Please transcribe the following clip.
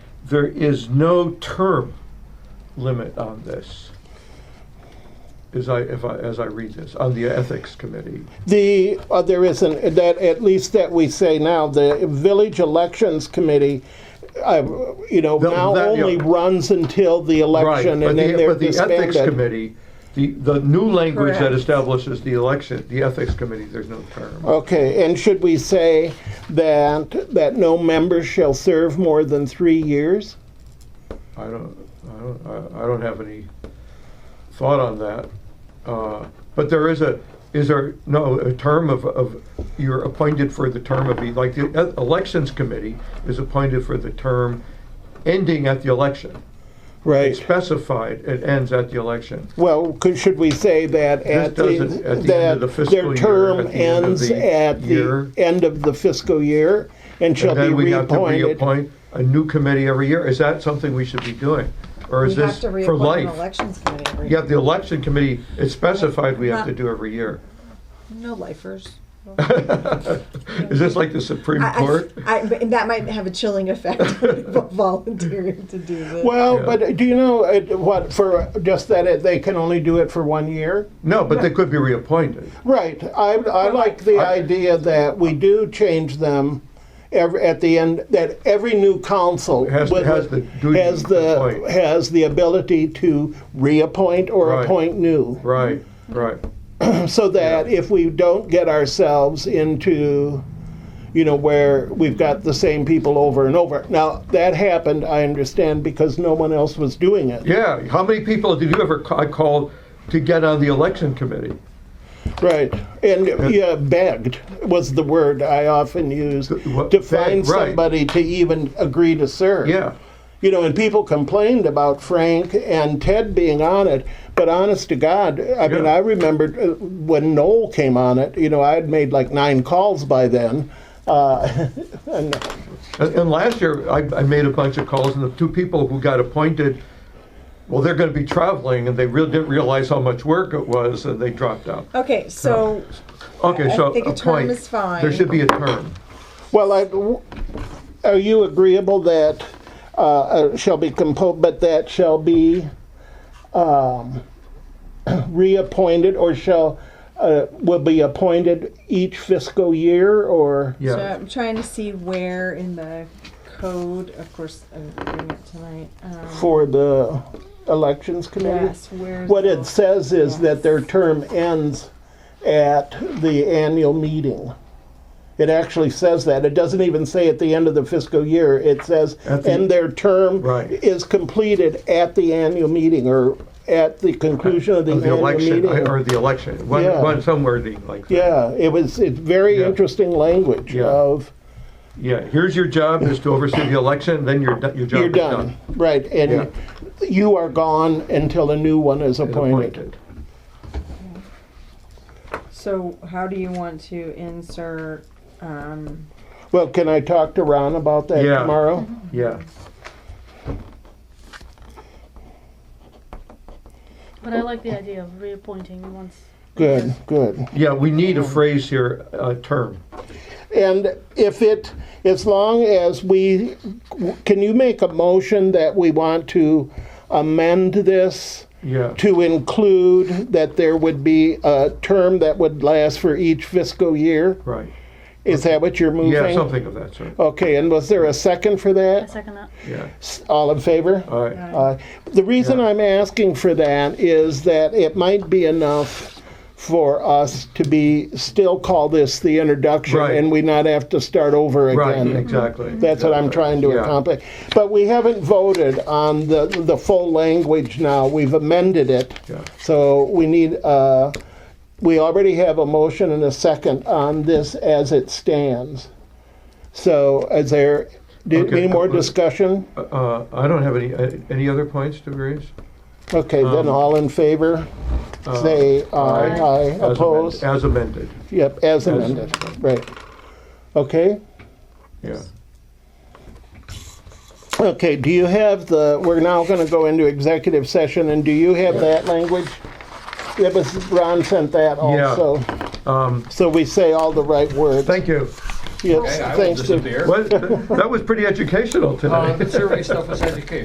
there is no term limit on this. As I, if I, as I read this, on the ethics committee. The, uh, there isn't, that, at least that we say now, the Village Elections Committee, uh, you know, The- now that, yeah. only runs until the Right, election but and then the, they're but the ethics disbanded. committee, the, the new language that Correct. establishes the election, the ethics committee, there's no term. Okay, and should we say that, that no member shall serve more than three years? I don't, I don't, I- I don't have any thought on that. Uh, But there is a, is there, no, a term of, of, you're appointed for the term of, the like, the e- elections committee is appointed for the term ending at the election. Right. It's specified, it ends at the election. Well, could, should we say that at doesn't- at the, the end that of the fiscal their year, term at the end of ends the at the year? end of the fiscal year and shall And be then we have to reappointed? reappoint a new committee every year. Is that something we should be doing? Or We is have this to for reappoint an life? elections committee every Yeah, year. the election committee, it's specified we have to do every year. No lifers. Is this like the Supreme I, Court? I, I, but that might have a chilling effect on people volunteering to do this. Well, Yeah. but do you know uh, what, for, just that it- they can only do it for one year? No, but they could be reappointed. Right, I, I like the I- idea that we do change them every, at the end, that every new council. Has- would- has the duty Has to the, appoint. has the ability to reappoint or Right. appoint new. Right, Mm-hmm. right. so that if we don't get ourselves into you know where we've got the same people over and over now that happened i understand because no one else was doing it Yeah, how many people did you ever ca- call to get on the election committee? right and yeah begged was the word i often used what- to find begged, right. somebody to even agree to serve Yeah, you know and people complained about frank and ted being on it but honest to god i mean Yeah. i remembered uh, when noel came on it you know i had made like nine calls by then uh, and and and last year, I, I made a bunch of calls, and the two people who got appointed, well, they're gonna be traveling, and they really didn't realize how much work it was, and they dropped out. Okay, so Okay, I so think a term appoint. is fine. There should be a term. Well, I, are you agreeable that uh, uh, shall be composed, but that shall be um, reappointed or shall, uh, will be appointed each fiscal year or? Yeah. So I'm trying to see where in the code, of course, I'm reading it tonight. Um, For the elections committee? yes, where's What the- it says is that their term ends at the annual meeting. It actually says that. It doesn't even say at the end of the fiscal year. It says, At the- and their term Right. is completed at the annual meeting or at the conclusion of the Of the annual election, I- or meeting. the election, one, Yeah. one, some wording like that. Yeah, it was, it's very Yeah. interesting language Yeah. of, Yeah, here's your job, is to oversee the election, then your, do- your job you're is done. done, right, Yeah. and you are gone until a new one is Is appointed. appointed. So how do you want to insert? Um, Well, can I talk to Ron about that Yeah. tomorrow? Yeah, But I like the idea of reappointing once. Mm-hmm. Good, good. yeah, we need a phrase here, a term. And if it, as long as we, can you make a motion that we want to amend this Yeah, to include that there would be a term that would last for each fiscal year? right. Is that what you're moving? Yeah, something of that sort, Okay, and was there a second for I that? second that. yeah. S- All in favor? All right, Uh, The reason I'm asking for that is that it might be enough for us to be, still call this the introduction, Right. and we not have to start over right, again. exactly. That's what I'm trying to Yeah. accomplish. But we haven't voted on the, the full language now, we've amended it. Yeah. So we need, uh, we already have a motion and a second on this as it stands. So is there, do- Okay. any more discussion? Uh, I don't have any, uh, any other points to raise? Okay, then all in favor, say aye, Aye. aye, Um, uh, As amended- opposed, As amended, yep, as- as amended, right. Okay, yeah. okay, do you have the, we're now gonna go into executive session, and do you have that language? That was, Ron sent that also, so we say all the right words. Um, Thank you. Yes, Okay, I will thanks to- disappear. Well, th- that was pretty educational Uh, tonight. the survey stuff was educational.